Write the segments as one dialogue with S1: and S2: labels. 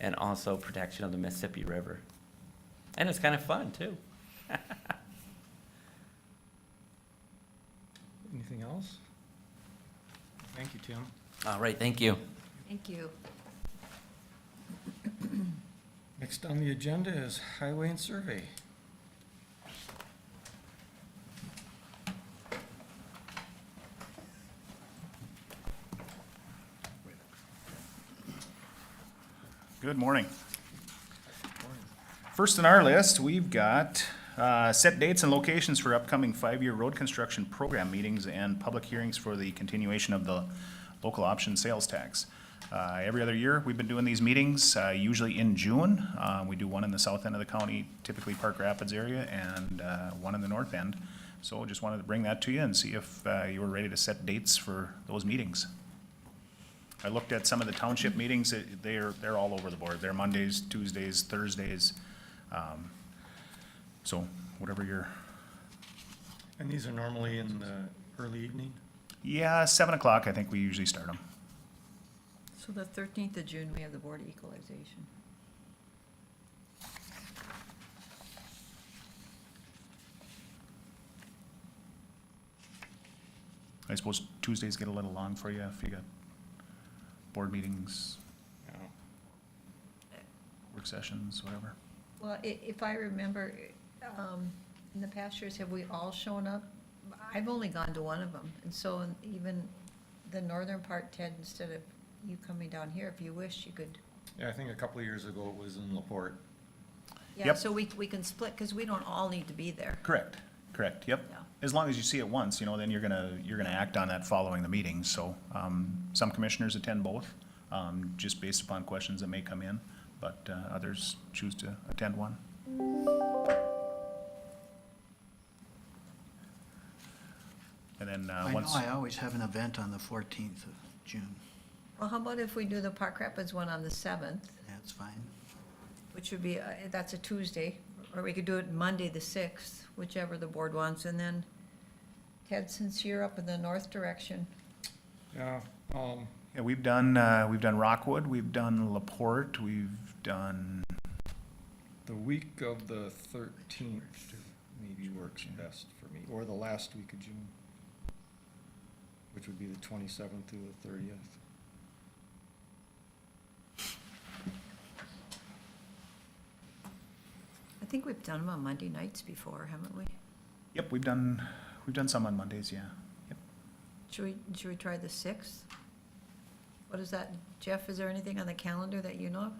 S1: and also protection of the Mississippi River. And it's kind of fun, too.
S2: Anything else? Thank you, Tim.
S1: All right, thank you.
S3: Thank you.
S2: Next on the agenda is highway and survey.
S4: Good morning. First on our list, we've got uh, set dates and locations for upcoming five-year road construction program meetings and public hearings for the continuation of the local option sales tax. Uh, Every other year, we've been doing these meetings, uh, usually in June. Uh, We do one in the south end of the county, typically Park Rapids area, and uh, one in the north end. So just wanted to bring that to you and see if uh, you were ready to set dates for those meetings. I looked at some of the township meetings, it- they're, they're all over the board. They're Mondays, Tuesdays, Thursdays. um, So whatever your,
S2: And these are normally in the early evening?
S4: yeah, seven o'clock, I think we usually start them.
S3: So the 13th of June, we have the Board of Equalization.
S4: I suppose Tuesdays get a little long for you if you got board meetings, work sessions, whatever.
S3: Well, i- if I remember, um, in the past years, have we all shown up? I've only gone to one of them, and so even the northern part, Ted, instead of you coming down here, if you wish, you could.
S2: Yeah, I think a couple of years ago it was in Laporte.
S3: Yeah,
S4: Yep.
S3: so we, we can split, because we don't all need to be there.
S4: Correct, correct, yep.
S3: Yeah.
S4: As long as you see it once, you know, then you're gonna, you're gonna act on that following the meeting, so, um, some commissioners attend both, um, just based upon questions that may come in, but, uh, others choose to attend one. And then, uh,
S5: I know
S4: once,
S5: I always have an event on the 14th of June.
S3: Well, how about if we do the Park Rapids one on the 7th,
S5: That's fine.
S3: which would be, uh, that's a Tuesday, or we could do it Monday, the 6th, whichever the board wants, and then, Ted, since you're up in the north direction,
S2: Yeah, um,
S4: yeah, we've done, uh, we've done Rockwood, we've done Laporte, we've done,
S2: the week of the thirteenth maybe works best for me, or the last week of June, which would be the twenty-seventh through the thirtieth.
S3: I think we've done them on Monday nights before, haven't we?
S4: yep, we've done, we've done some on Mondays, yeah. Yep.
S3: Should we, should we try the sixth? What is that, Jeff, is there anything on the calendar that you know of?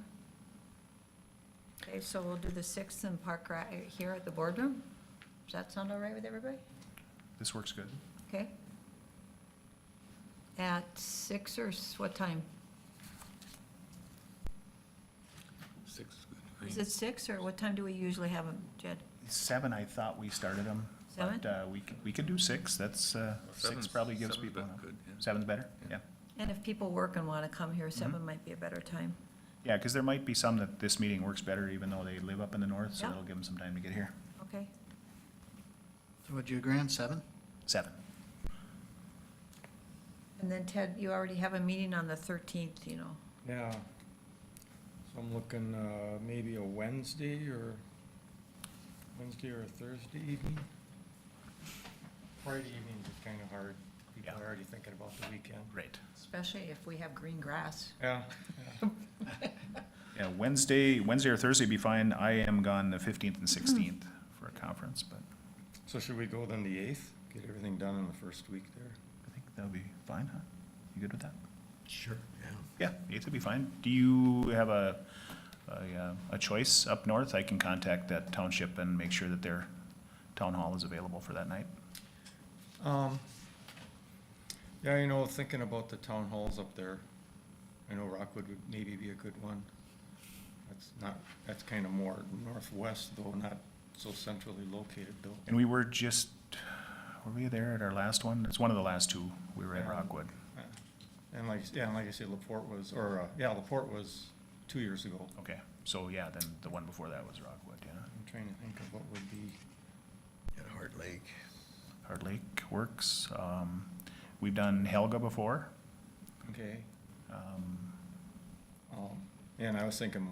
S3: Okay, so we'll do the sixth in Park, Ra- here at the boardroom? Does that sound all right with everybody?
S4: This works good.
S3: Okay? At six or s- what time? Is it six or what time do we usually have them, Jed?
S4: Seven, I thought we started them.
S3: Seven?
S4: But uh, we could, we could do six, that's, uh, six
S6: seven's-
S4: probably gives
S6: seven's
S4: people
S6: about
S4: enough.
S6: good, yeah.
S4: Seven's better, yeah.
S3: And if people work and want to come here, seven might be a better time.
S4: Yeah, because there might be some that this meeting works better even though they live up in the north, so
S3: Yeah.
S4: that'll give them some time to get here.
S3: Okay?
S5: So would you agree on seven?
S4: Seven.
S3: And then Ted, you already have a meeting on the thirteenth, you know?
S2: Yeah. So I'm looking, uh, maybe a Wednesday or, Wednesday or a Thursday evening. Friday evenings is kind of hard. People
S4: Yeah.
S2: are already thinking about the weekend.
S4: Great.
S3: Especially if we have green grass.
S2: Yeah.
S4: Yeah, Wednesday, Wednesday or Thursday would be fine. I am gone the fifteenth and sixteenth for a conference, but
S2: So should we go then the eighth? Get everything done in the first week there?
S4: I think that'll be fine, huh? You good with that?
S5: Sure.
S4: Yeah, eighth would be fine. Do you have a, a, uh, a choice up north? I can contact that township and make sure that their town hall is available for that night.
S2: Um, yeah, you know, thinking about the town halls up there, I know Rockwood would maybe be a good one. That's not, that's kind of more northwest though, not so centrally located though.
S4: And we were just, were we there at our last one? It's one of the last two. We were at Rockwood.
S2: Uh, And like, yeah, and like I said, Laporte was, or, uh, yeah, Laporte was two years ago.
S4: Okay, so yeah, then the one before that was Rockwood, yeah.
S2: I'm trying to think of what would be,
S6: At Heart Lake.
S4: Hard Lake Works. Um, we've done Helga before.
S2: okay,
S4: Um,
S2: um, and I was thinking